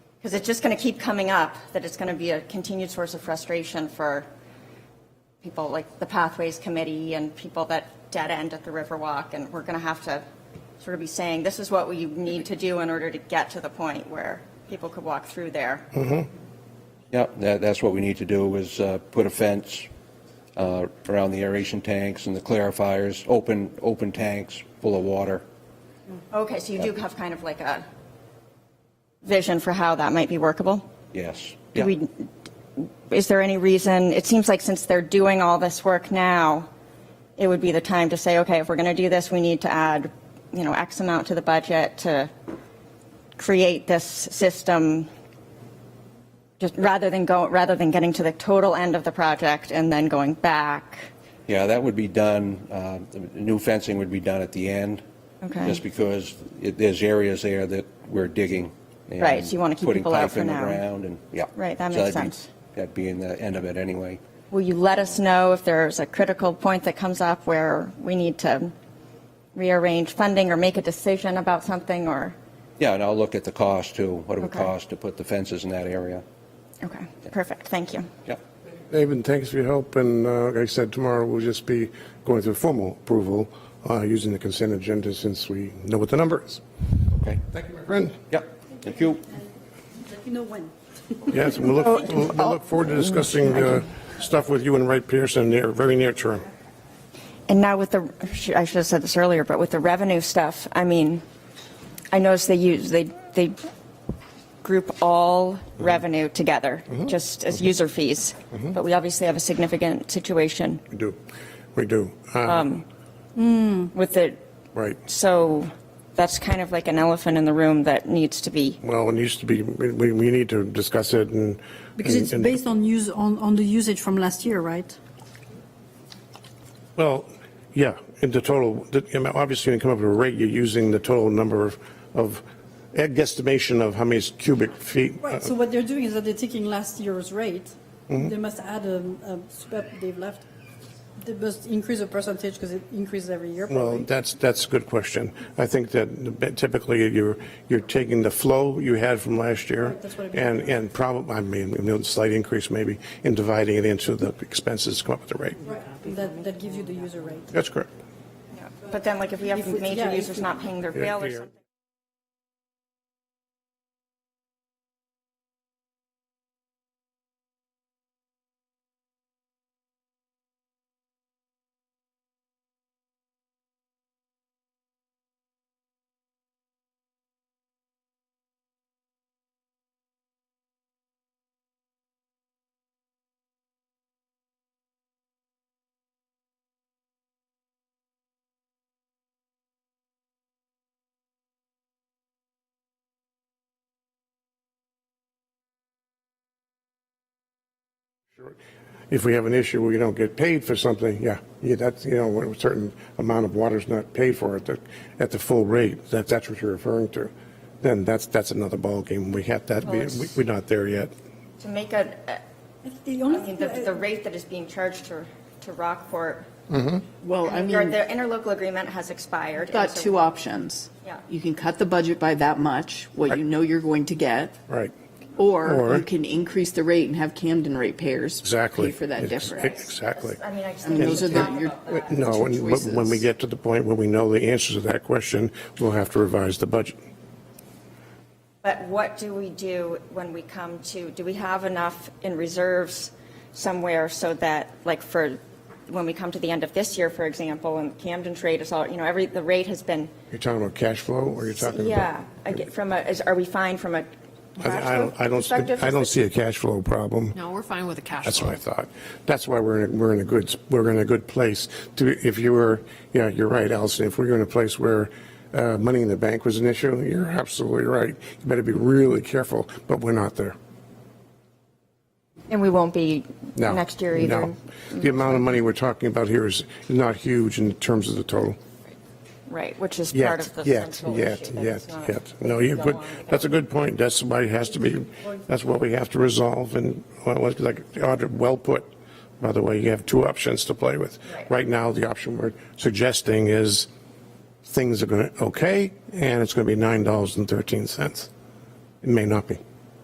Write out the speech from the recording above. Because it's just going to keep coming up, that it's going to be a continued source of frustration for people like the Pathways Committee and people that dead end at the Riverwalk. And we're going to have to sort of be saying, this is what we need to do in order to get to the point where people could walk through there. Yep, that, that's what we need to do, is uh, put a fence uh, around the aeration tanks and the clarifiers, open, open tanks full of water. Okay, so you do have kind of like a vision for how that might be workable? Yes. Do Yeah. we, is there any reason, it seems like since they're doing all this work now, it would be the time to say, okay, if we're going to do this, we need to add, you know, X amount to the budget to create this system, just rather than go, rather than getting to the total end of the project and then going back. Yeah, that would be done, uh, the new fencing would be done at the end. Okay. Just because it- there's areas there that we're digging. and Right, so you wanna keep people out for now. Putting pipe in the ground and, yeah. Right, that So makes that'd be- sense. That'd be in the end of it anyway. Will you let us know if there's a critical point that comes up where we need to rearrange funding or make a decision about something or? Yeah, and I'll look at the cost too, what it would Okay. cost to put the fences in that area. Okay, perfect, thank you. Yep, David, thanks for your help, and uh, like I said, tomorrow we'll just be going through formal approval uh, using the consent agenda since we know what the number is. okay. Thank you, my friend. Yep, thank you. Let me know when. Yes, and we'll Oh, look, we'll we'll look forward to discussing uh, stuff with you and Wright Pearson near, very near term. And now with the, I should have said this earlier, but with the revenue stuff, I mean, I noticed they use, they, they group all revenue together, just as user fees. But we obviously have a significant situation We do, we do. Uh, Um, with the, Right. so that's kind of like an elephant in the room that needs to be, Well, it used to be, we, we we need to discuss it and. Because it's and- based on use, on, on the usage from last year, right? Well, yeah, and the total, the- you know, obviously, when you come up with a rate, you're using the total number of, of a guesstimation of how many cubic feet. uh, Right, so what they're doing is that they're taking last year's rate, Mm-hmm. they must add a, a step they've left. They must increase the percentage because it increases every year Well, probably. that's, that's a good question. I think that typically you're, you're taking the flow you had from last year Right, that's what I mean. and, and probably, I mean, you know, slight increase maybe, and dividing it into the expenses, to come up with the rate. Right, That, that gives you the user rate. That's correct. but then like if we have If we- yeah, major if users we- not paying their bill or yeah. something. If we have an issue where you don't get paid for something, yeah, yeah, that's, you know, when a certain amount of water's not paid for at the, at the full rate, that, that's what you're referring to, then that's, that's another ballgame. We have that, we, it's- we're not there yet. To make a, a- I think The I only mean, thing, the, the that- rate that is being charged to, to Rockport, Well, I your, mean, their interlocal agreement has expired. you've got and so- two options. Yeah. You can cut the budget by that much, what you know you're going to get, Right, Or- or you can increase the rate and have Camden ratepayers exactly. pay for that Ex- difference. Exactly. I mean, I just And think we those should are the- talk your- about that. No, and but when we choices. get to the point where we know the answers to that question, we'll have to revise the budget. But what do we do when we come to, do we have enough in reserves somewhere so that, like, for, when we come to the end of this year, for example, and Camden trade is all, you know, every, the rate has been, You're talking about cash flow, or you're talking about? yeah, I get from a, is, are we fine from a cash I I flow don't, I don't, perspective? I don't see a cash flow problem. No, we're fine with the cash That's flow. what I thought. That's why we're in, a- we're in a good, we're in a good place to, if you were, yeah, you're right, Allison, if we were in a place where uh, money in the bank was an issue, you're absolutely right. You better be really careful, but we're not there. And we won't be No. next year either? No. The amount of money we're talking about here is not huge in terms of the total. Right, which is part Yet, of the yet, central yet, issue. yet, That's not- yet. No, you, Go but on. that's a good point. That's why it has to be, that's what we have to resolve and, well, it's like, the audit well put. By the way, you have two options to play with. Right. Right now, the option we're suggesting is things are going to, okay, and it's going to be $9.13. It may not be.